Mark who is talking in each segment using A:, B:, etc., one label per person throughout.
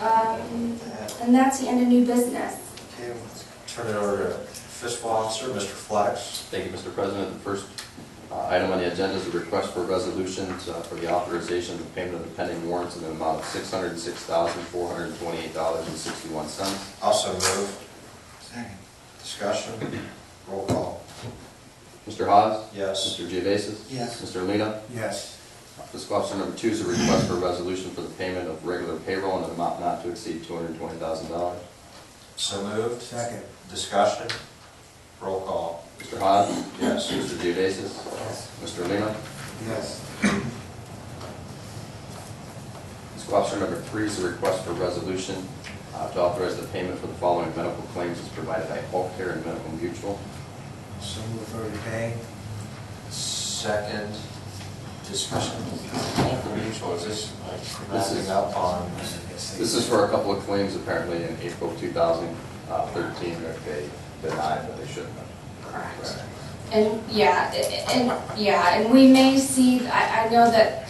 A: Um, And that's the end of new business.
B: Okay, turn it over to fiscal officer, Mr. Flex.
C: Thank you, Mr. President. The first uh, item on the agenda is a request for resolutions uh, for the authorization of the payment of the pending warrants in the amount of $606,428.61.
B: Also move. Second. Discussion, roll call.
C: Mr. Hawes?
B: Yes.
C: Mr. Geovasis?
B: Yes.
C: Mr. Lina?
B: Yes.
C: Fiscal officer number two is a request for a resolution for the payment of regular payroll in an amount not to exceed $220,000.
B: So moved. Second. Discussion, roll call.
C: Mr. Hawes?
B: Yes.
C: Mr. Geovasis?
B: Yes.
C: Mr. Lina?
B: Yes.
C: Fiscal officer number three is a request for resolution uh, to authorize the payment for the following medical claims as provided by Health Care and Medical Mutual.
B: So moved for today. Second, discussion. Mutual, is this like
C: This is-
B: wrapping up on?
C: This is for a couple of claims apparently in April 2013 that they denied, but they shouldn't have.
A: Correct. And, yeah, i- i- and, yeah, and we may see, I, I know that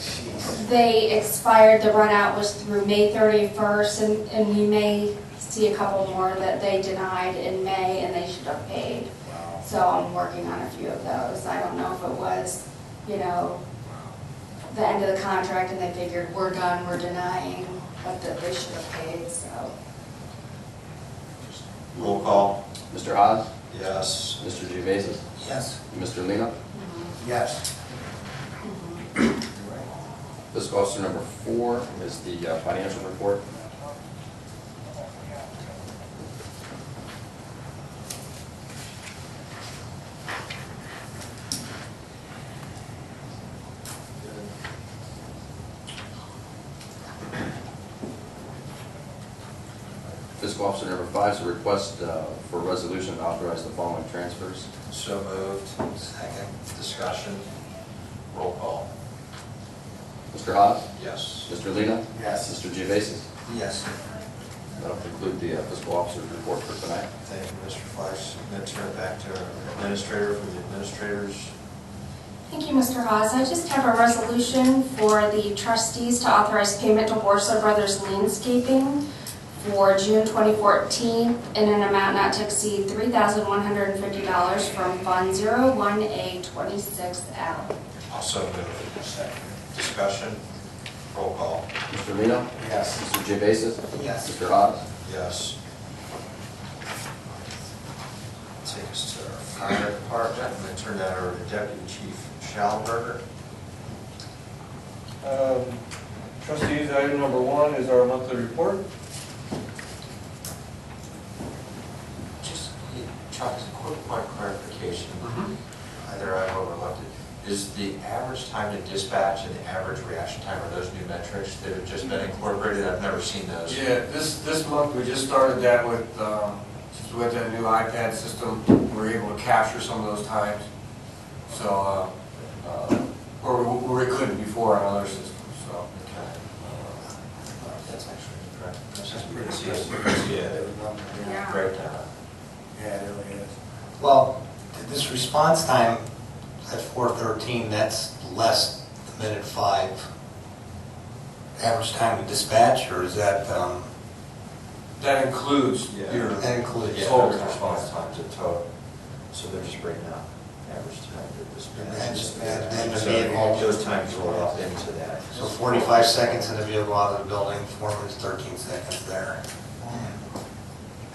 A: they expired, the runout was through May thirty-first, and, and we may see a couple more that they denied in May and they should have paid.
B: Wow.
A: So I'm working on a few of those. I don't know if it was, you know, the end of the contract and they figured, we're done, we're denying, but that they should have paid, so.
B: Roll call.
C: Mr. Haas,
B: Yes.
C: Mr. Gevasis,
B: Yes.
C: Mr. Lino.
B: Yes.
A: Mm-hmm.
C: Fiscal officer number four is the uh, financial report. Fiscal officer number five is a request uh, for a resolution to authorize the following transfers.
B: So moved. Second, discussion, roll call.
C: Mr. Haas,
B: Yes.
C: Mr. Lino.
B: Yes.
C: Mr. Gevasis.
B: Yes.
C: That'll conclude the uh, fiscal officer's report for tonight.
B: Thank you, Mr. Fleiss. I'm going to turn it back to our administrator for the administrators.
A: Thank you, Mr. Hawes. I just have a resolution for the trustees to authorize payment to Borso Brothers Landscaping for June 2014 in an amount not to exceed $3,150 from Fund 01A26L.
B: Also moved. Second. Discussion, roll call.
C: Mr. Lino.
B: Yes.
C: Mr. Gevasis.
B: Yes.
C: Mr. Haas.
B: Yes. Take us to our fire department. I'm going to turn that over to Deputy Chief Schallenberger.
D: Um, Trustees, item number one is our monthly report.
B: Just, Chuck, a quick point of clarification. Either I've overlooked it. Is the average time to dispatch and the average reaction time, are those new metrics that have just been incorporated? I've never seen those.
E: Yeah, this, this month, we just started that with, um, just with that new iPad system, we were able to capture some of those times. So, uh, uh, or, we- or we couldn't before on other systems, so.
B: Okay. That's actually correct. That's
E: pretty
B: pretty
E: good.
A: Yeah.
B: Breakdown.
E: Yeah, it really is.
F: Well, th- this response time at four thirteen, that's less than minute five average time to dispatch, or is that, um,
E: That includes
B: Yeah.
E: your,
F: that includes?
B: Yeah,
E: Total
B: total response
E: response
B: time to total. So they're just breaking out average time to dispatch.
F: And then the
B: So
F: vehicle-
B: Those times roll up into that.
F: So forty-five seconds in the vehicle out of the building, four minutes, thirteen seconds there.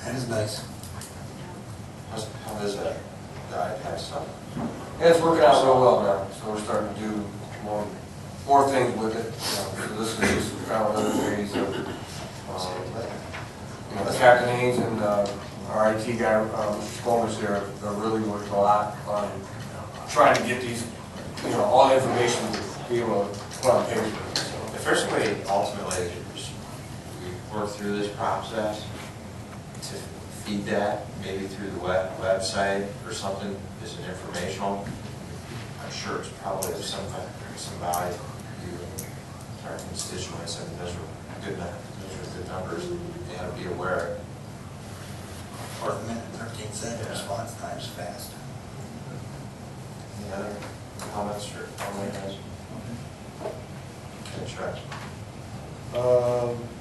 F: That is nice.
B: How's- How is that, the iPad stuff?
E: yeah, it's working out real well now, so we're starting to do more, more things with it. you know, So this is, this is kind of another phase of, um, you know, Captain Haynes and uh, our IT guy, um, Skolmers there, are really worked a lot on trying to get these, you know, all the information to be able to put on paper. So,
B: The first way ultimately is we work through this process to feed that, maybe through the web, website or something, as an informational. I'm sure it's probably of some, va- some value to our constituents, I mean, those are good, nu- those are good numbers, they have to be aware.
F: Four minute, thirteen second response time's fast.
B: Any other comments or comments? Okay, Chuck.